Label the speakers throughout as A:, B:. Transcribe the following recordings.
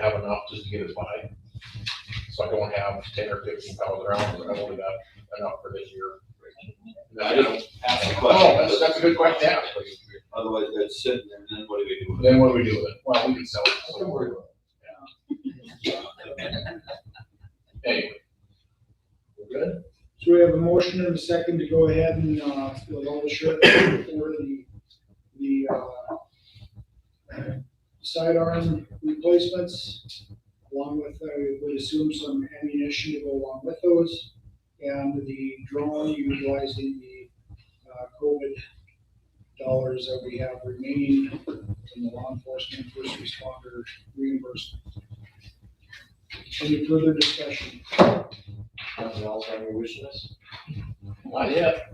A: enough just to get us by. So I don't have ten or fifteen thousand rounds, but I've only got enough for this year.
B: I didn't ask the
A: Oh, that's,
B: question,
A: that's a good question, to ask, please.
B: otherwise that's sitting there, and then what do we do with it?
A: Then what do we do with it? Well, we can sell it. So, Anyway. We're good?
C: So we have a motion and a second to go ahead and, uh, fill out the shirt for the, the, uh, sidearm replacements, along with, I would assume some ammunition to go along with those, and the drone utilizing the, uh, COVID dollars that we have remaining from the law enforcement first responder reimbursement. Any further discussion?
D: Nothing else on your wish list?
A: Not yet.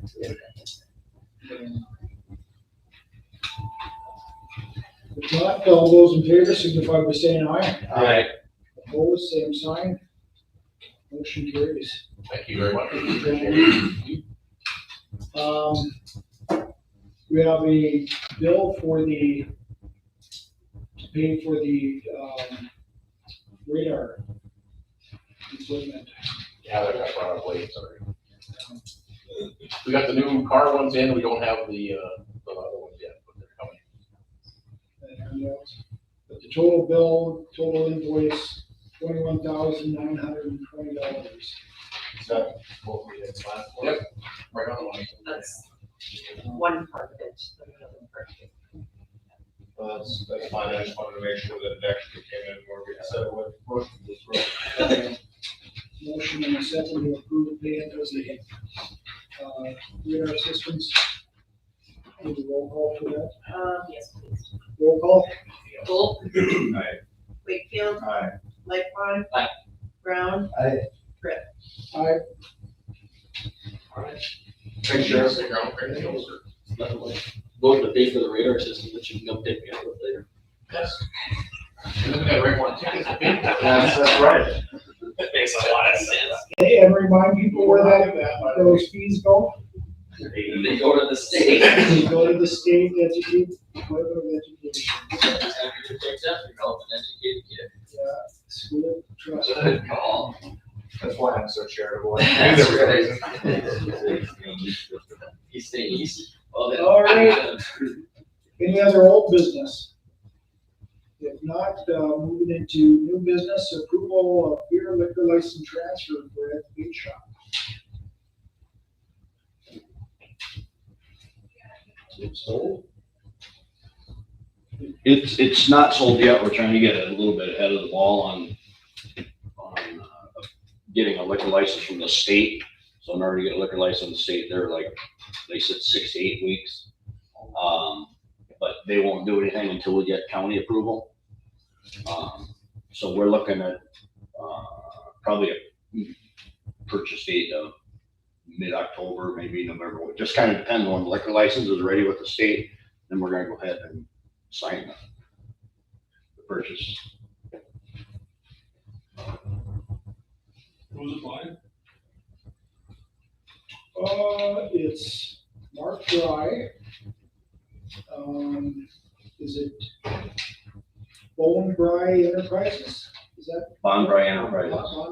C: If not, all those in favor signify by saying aye.
D: Alright.
C: Opposed, same sign. Motion carries.
A: Thank you very much.
C: Um, we have a bill for the, to pay for the, um, radar equipment.
A: Yeah, that got brought up late, sorry. We got the new car ones in, we don't have the, uh, the other ones yet, but they're coming.
C: and else. But the total bill, total invoice, twenty-one thousand nine hundred and twenty dollars.
D: Is that what we had planned for?
A: Yep. Right on the money.
E: That's one part of it, the other part.
D: Well, that's, that's fine, I just wanted to make sure that it actually came in where we said what, what this road.
C: Motion and a second to approve the pay as the, uh, radar systems. Need a roll call for that.
E: Um, yes, please.
C: Roll call?
E: Volk,
D: Aye.
E: Wakefield,
D: Aye.
E: Lightfon. Brown.
D: Aye.
C: Aye.
A: Thank you. Thank you, sir.
F: vote to pay for the radar system that you can come pick me up with later.
A: Yes. You're looking at the right one.
D: That's, that's right.
F: That makes a lot of sense.
C: Hey, and remind people where that, those fees go.
F: They go to the state.
C: They go to the state educate, Department of Education, uh, school trust.
D: That's why I'm so charitable.
F: That's He's
C: All right. Any other old business? If not, uh, moving into new business, approval of beer liquor license transfer for Ed Beach Shop.
G: It's, it's not sold yet, we're trying to get a little bit ahead of the ball on, on, uh, getting a liquor license from the state. So in order to get a liquor license from the state, they're like, they said six to eight weeks. Um, but they won't do anything until we get county approval. Um, so we're looking at, uh, probably a purchase date of mid-October, maybe November, It just kind of depends on when the liquor license is ready with the state, then we're gonna go ahead and sign the purchase.
B: Who's applying?
C: Uh, it's Mark Fry. Um, is it Bone Bry Enterprises? Is that
G: Bond by Enterprises.
C: Bonbry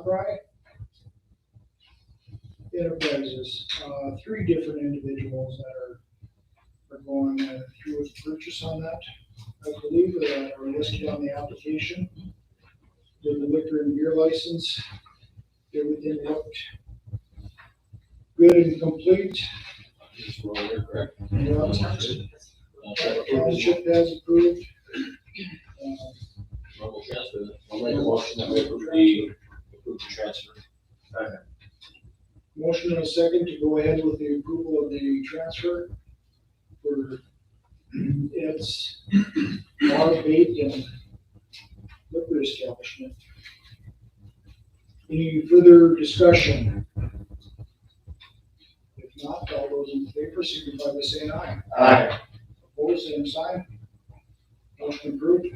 C: Enterprises, uh, three different individuals that are, are going uh, through with purchase on that. I believe that are listed on the application. Did the liquor and beer license, everything looked good and complete.
D: Just roll it, correct?
C: Yeah, Township has approved. Uh,
D: Rubble transfer.
B: I'll make a motion that we approve the, approve the transfer.
C: Motion and a second to go ahead with the approval of the transfer for its bar, bait, and liquor establishment. Any further discussion? If not, all those in favor signify by saying aye.
D: Aye.
C: Opposed, same sign. Motion approved.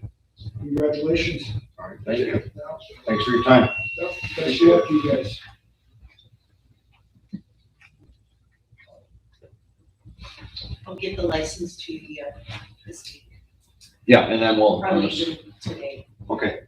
C: Congratulations.
G: All right, thank you. Thanks for your time.
C: Yep, Best of luck, you guys.
E: I'll get the license to you uh, this week,
G: Yeah, and then we'll,
E: probably even today.
G: okay,